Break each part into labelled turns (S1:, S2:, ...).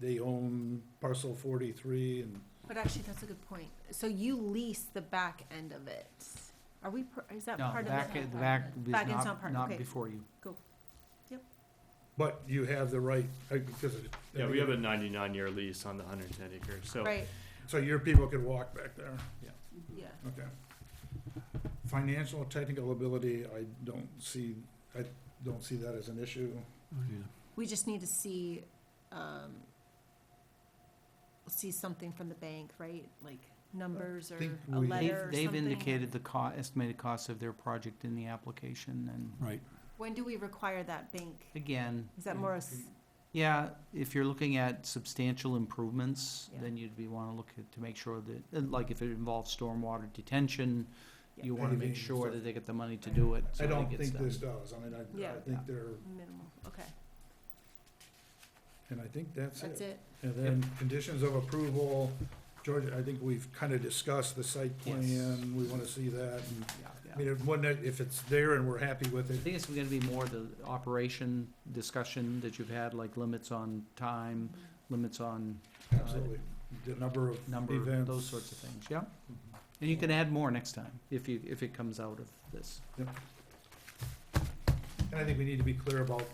S1: they own parcel forty-three and
S2: But actually, that's a good point. So you lease the back end of it. Are we, per- is that
S3: No,
S2: part of
S3: back,
S2: it?
S3: the back is
S2: Back end's not
S3: not,
S2: part,
S3: not
S2: okay.
S3: before you.
S1: But you have the right, uh, because. it-
S4: Yeah, we have a ninety-nine year lease on the hundred and ten acres, so.
S2: Right,
S1: So your people could walk back there,
S2: yeah.
S1: okay. Financial technical ability, I don't see, I don't see that as an issue.
S2: We just need to see, um, see something from the bank, right? Like numbers or
S1: think
S2: a
S1: we-
S3: They've,
S2: letter or
S3: they've
S2: something?
S3: indicated the co, estimated cost of their project in the application, and
S5: Right.
S2: When do we require that bank?
S3: again.
S2: Is that more, a s-
S3: Yeah, if you're looking at substantial improvements,
S2: Yeah.
S3: then you'd be wanna look at, to make sure that, and like if it involves stormwater detention,
S2: Yeah.
S3: you wanna
S1: Paving
S3: make
S1: and
S3: sure
S1: stuff.
S3: that they get the money to do it. so
S1: I
S3: it
S1: don't
S3: gets
S1: think
S3: done.
S1: this does, I mean, I, I
S2: Yeah.
S1: think they're,
S2: minimal, okay,
S1: and I think that's
S2: that's
S1: it.
S2: it.
S1: And then conditions of approval, George, I think we've kind of discussed the site
S3: Yes.
S1: plan, we want to see that. and-
S3: Mm, Yeah,
S1: I
S3: yeah.
S1: mean, if one, if it's there and we're happy with
S3: I
S1: it,
S3: think it's gonna be more the operation discussion that you've had, like limits on time, limits on
S1: absolutely, Uh, the number of
S3: number,
S1: events.
S3: those sorts of things, yeah? And you can add more next time, if you, if it comes out of this.
S1: And I think we need to be clear about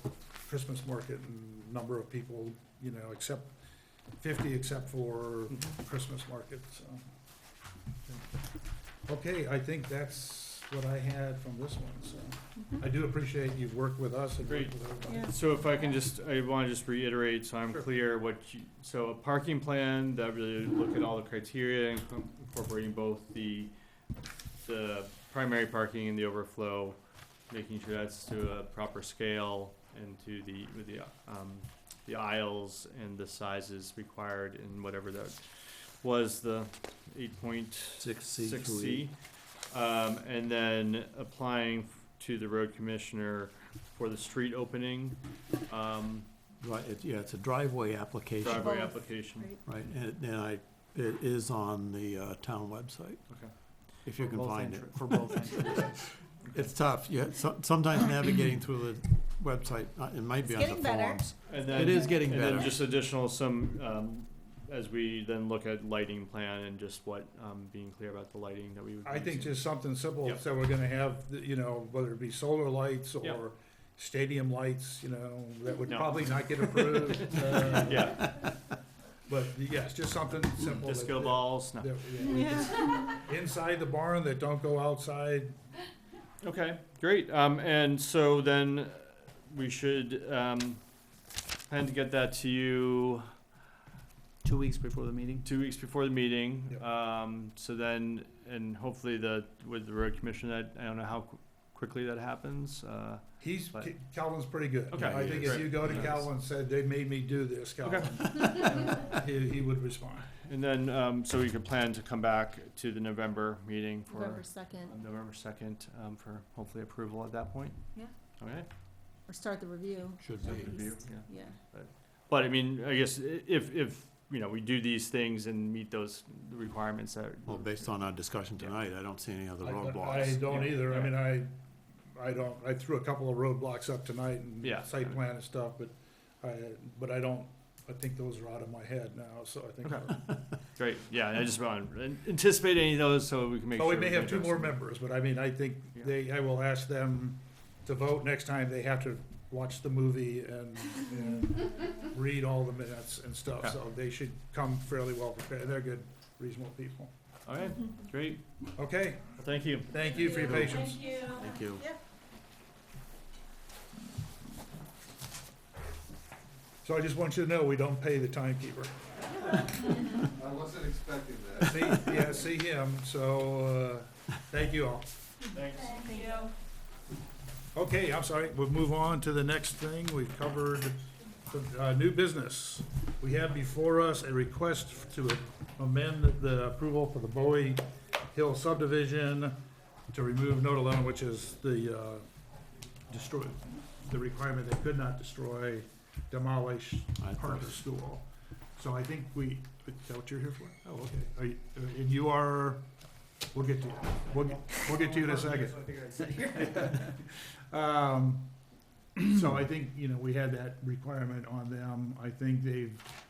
S1: Christmas market and number of people, you know, except fifty except for
S4: Mhm.
S1: Christmas market, so. Okay, I think that's what I had from this one, so. I do appreciate you've worked with us and worked
S4: Great.
S1: with everybody.
S2: Yeah.
S4: So if I can just, I wanna just reiterate, so I'm
S1: Sure.
S4: clear what you, so a parking plan that really look at all the criteria and com- incorporating both the, the primary parking and the overflow, making sure that's to a proper scale and to the, with the, um, the aisles and the sizes required and whatever that was the eight point
S5: Six C
S4: six
S5: through E.
S4: C. Um, and then applying f- to the road commissioner for the street opening, um,
S5: Right, it, yeah, it's a driveway application,
S4: driveway
S2: Both,
S4: application.
S2: Right.
S5: right, and, it- and I, it is on the, uh, town website.
S4: Okay.
S5: If you can
S3: Both
S5: find it.
S3: entr- For both entrances.
S5: It's tough, yeah, so, sometimes navigating through the website, uh, it might be
S2: It's
S5: on the
S2: getting better.
S5: forums.
S4: And then,
S5: It is getting
S4: and then
S5: better.
S4: just additional some, um, as we then look at lighting plan and just what, um, being clear about the lighting that we would. be
S1: I think
S4: using.
S1: just something simple,
S4: Yep.
S1: so we're gonna have, the- you know, whether it be solar lights
S4: Yeah.
S1: or stadium lights, you know, that would
S4: No.
S1: probably not get approved. uh,
S4: Yeah, Mm-hmm.
S1: But yes, just something simple. that-
S4: disco balls, no,
S1: that- yeah, we just- Inside the barn that don't go outside,
S4: okay, great, um, and so then we should, um, plan to get that to you,
S3: Two weeks before the meeting?
S4: two weeks before the meeting.
S1: Yep.
S4: Um, so then, and hopefully the, with the road commission, I, I don't know how qu- quickly that happens, uh.
S1: he's,
S4: But-
S1: Calvin's pretty good.
S4: Okay.
S1: I think if
S4: Great.
S1: you go to
S4: Nice.
S1: Calvin and said, they made me do this,
S4: Okay.
S1: Calvin, he, he would respond.
S4: And then, um, so we could plan to come back to the November meeting
S2: November
S4: for,
S2: second,
S4: um, November second, um, for hopefully approval at that point?
S2: Yeah.
S4: Okay,
S2: or start the review,
S5: Should
S2: At
S5: be.
S2: least.
S4: review, yeah.
S2: yeah.
S4: But I mean, I guess i- if, if, you know, we do these things and meet those requirements that.
S5: Well, based on our discussion tonight, I don't see any other
S1: I- I
S5: roadblocks.
S1: don't
S4: Yeah.
S1: either, I mean, I, I don't, I threw a couple of roadblocks up tonight
S4: Yeah.
S1: and site plan and stuff, but I, but I don't, I think those are out of my head now, so I think.
S4: Okay. Great, yeah, and I just want to anticipate any of those so we can make
S1: Oh,
S4: sure.
S1: we may have two
S4: address
S1: more
S4: them.
S1: members, but I mean, I think
S4: Yeah.
S1: they, I will ask them to vote next time they have to watch the movie and, and read all the minutes and stuff,
S4: Okay.
S1: so they should come fairly well prepared, they're good, reasonable people.
S4: All right, great,
S1: Okay,
S4: Well, thank you.
S1: thank you for your patience.
S5: Thank you.
S1: So I just want you to know, we don't pay the timekeeper.
S6: I wasn't expecting that.
S1: See, yeah, see him, so, uh, thank you all.
S4: Thanks.
S2: Thank you.
S1: Okay, I'm sorry, we'll move on to the next thing, we've covered the, uh, new business. We have before us a request to amend the approval for the Bowie Hill subdivision to remove note alone, which is the, uh, destroy, the requirement they could not destroy, demolish
S5: I
S1: part of
S5: thought-
S1: the school. So I think we, is that what you're here for? Oh, okay, Are you- uh, and you are, we'll get to you, we'll, get- we'll get to you in a second. Um, so I think, you know, we had that requirement on them. I think they've